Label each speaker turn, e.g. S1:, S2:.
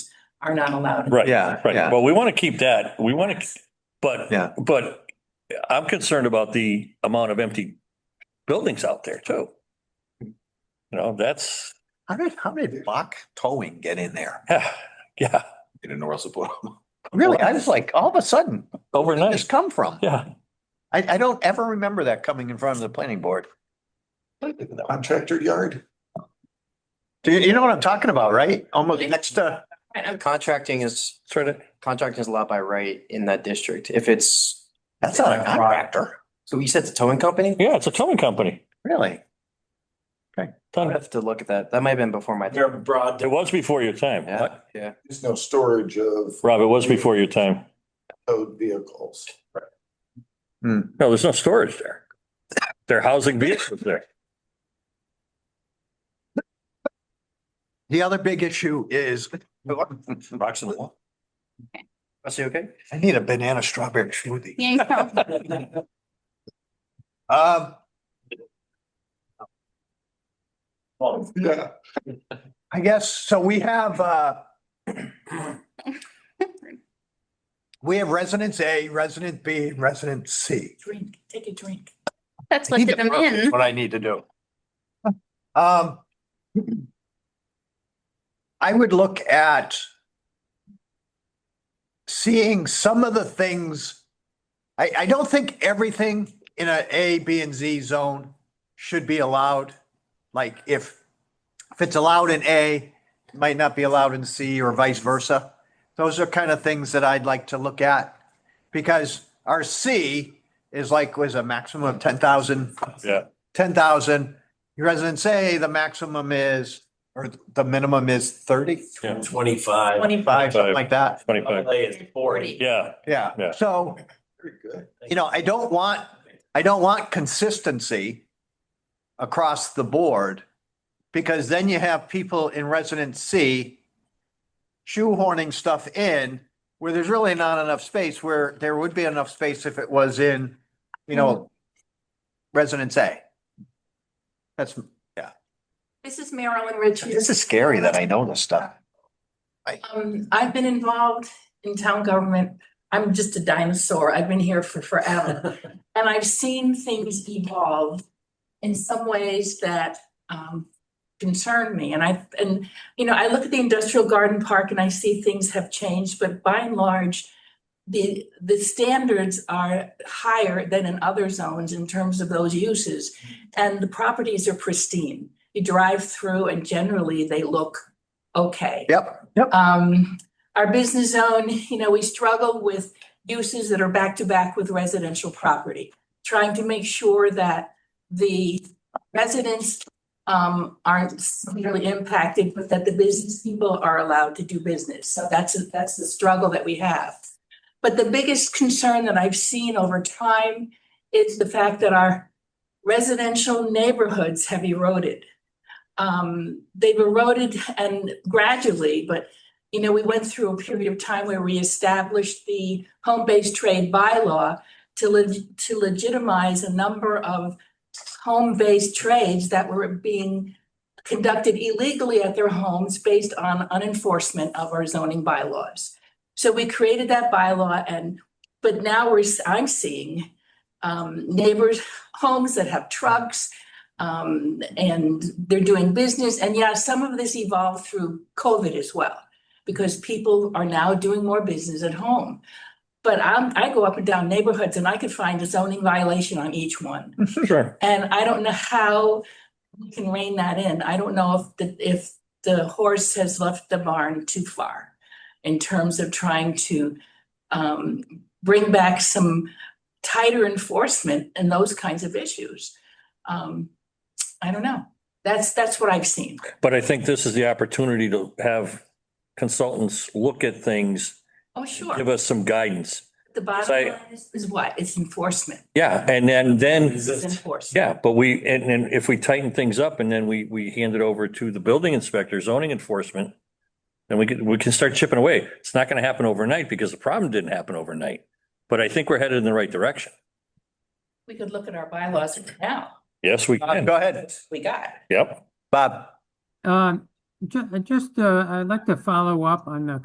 S1: are not allowed.
S2: Right.
S3: Yeah, yeah.
S2: Right. Well, we want to keep that. We want to, but,
S3: Yeah.
S2: but I'm concerned about the amount of empty buildings out there too. You know, that's,
S3: How did, how did Bach Towing get in there?
S2: yeah, yeah,
S4: in North Sepulveda.
S3: Really? I was like, all of a sudden, where'd this
S2: overnight.
S3: come from?
S2: Yeah.
S3: I, I don't ever remember that coming in front of the planning board.
S4: Contractor yard.
S3: Do you, you know what I'm talking about, right? Almost next to,
S1: Right, I'm-
S5: Contracting is,
S2: Sort of,
S5: contracting is allowed by right in that district. If it's,
S3: that's not a contractor,
S5: so you said it's a towing company?
S2: yeah, it's a towing company.
S3: really.
S5: I would have to look at that. That might have been before my time.
S4: They're broad.
S2: It was before your time.
S5: Yeah, yeah.
S4: There's no storage of
S2: Rob, it was before your time.
S4: towed vehicles.
S5: Hmm.
S2: No, there's no storage there. They're housing vehicles there.
S3: The other big issue is. Rocks in the wall.
S5: Is he okay?
S3: I need a banana strawberry smoothie.
S6: Yeah, you know,
S3: Um,
S4: Yeah.
S3: I guess, so we have, uh, we have residence A, resident B, and resident C.
S1: Drink, take a drink.
S6: that's what did them in.
S3: What I need to do. Um, I would look at seeing some of the things. I, I don't think everything in a A, B, and Z zone should be allowed. Like if, if it's allowed in A, it might not be allowed in C or vice versa. Those are kind of things that I'd like to look at because our C is like, was a maximum of ten thousand
S2: Yeah.
S3: ten thousand, your residents say the maximum is, or the minimum is thirty?
S2: Yeah.
S7: Twenty-five.
S3: Twenty-five, something like that,
S2: Twenty-five.
S7: Probably it's forty.
S2: Yeah,
S3: yeah.
S2: Yeah.
S3: So,
S4: Very good.
S3: you know, I don't want, I don't want consistency across the board, because then you have people in residence C shoehorning stuff in where there's really not enough space, where there would be enough space if it was in, you know, residence A. That's,
S1: This is Marilyn Richards.
S3: this is scary that I know this stuff.
S1: Um, I've been involved in town government. I'm just a dinosaur. I've been here for forever. And I've seen things evolve in some ways that um concern me. And I, and, you know, I look at the industrial garden park and I see things have changed, but by and large, the, the standards are higher than in other zones in terms of those uses. And the properties are pristine. You drive through and generally they look okay.
S3: Yep, yep.
S1: Um, our business zone, you know, we struggle with uses that are back to back with residential property. Trying to make sure that the residents um aren't severely impacted, but that the business people are allowed to do business. So that's that's the struggle that we have. But the biggest concern that I've seen over time is the fact that our residential neighborhoods have eroded. Um, they've eroded and gradually, but you know, we went through a period of time where we established the home-based trade bylaw to leg- to legitimize a number of home-based trades that were being conducted illegally at their homes based on unenforcement of our zoning bylaws. So we created that bylaw and, but now we're, s- I'm seeing um, neighbors, homes that have trucks, um, and they're doing business. And yeah, some of this evolved through COVID as well, because people are now doing more business at home. But I'm, I go up and down neighborhoods and I could find a zoning violation on each one.
S2: sure.
S1: And I don't know how we can rein that in. I don't know if the, if the horse has left the barn too far in terms of trying to um, bring back some tighter enforcement and those kinds of issues. Um, I don't know. That's, that's what I've seen.
S2: But I think this is the opportunity to have consultants look at things,
S1: Oh,
S2: give
S1: sure.
S2: us some guidance.
S1: The
S2: I-
S1: bottom line is, is what? It's enforcement.
S2: Yeah, and then, then.
S1: It's enforcement.
S2: Yeah, but we, and then if we tighten things up and then we, we hand it over to the building inspector, zoning enforcement, then we can, we can start chipping away. It's not going to happen overnight because the problem didn't happen overnight. But I think we're headed in the right direction.
S1: We could look at our bylaws right now.
S2: Yes, we
S3: Bob,
S2: can.
S3: Go ahead,
S1: That's what we got.
S2: Yep.
S3: Bob.
S8: Um, ju- just, uh, I'd like to follow up on the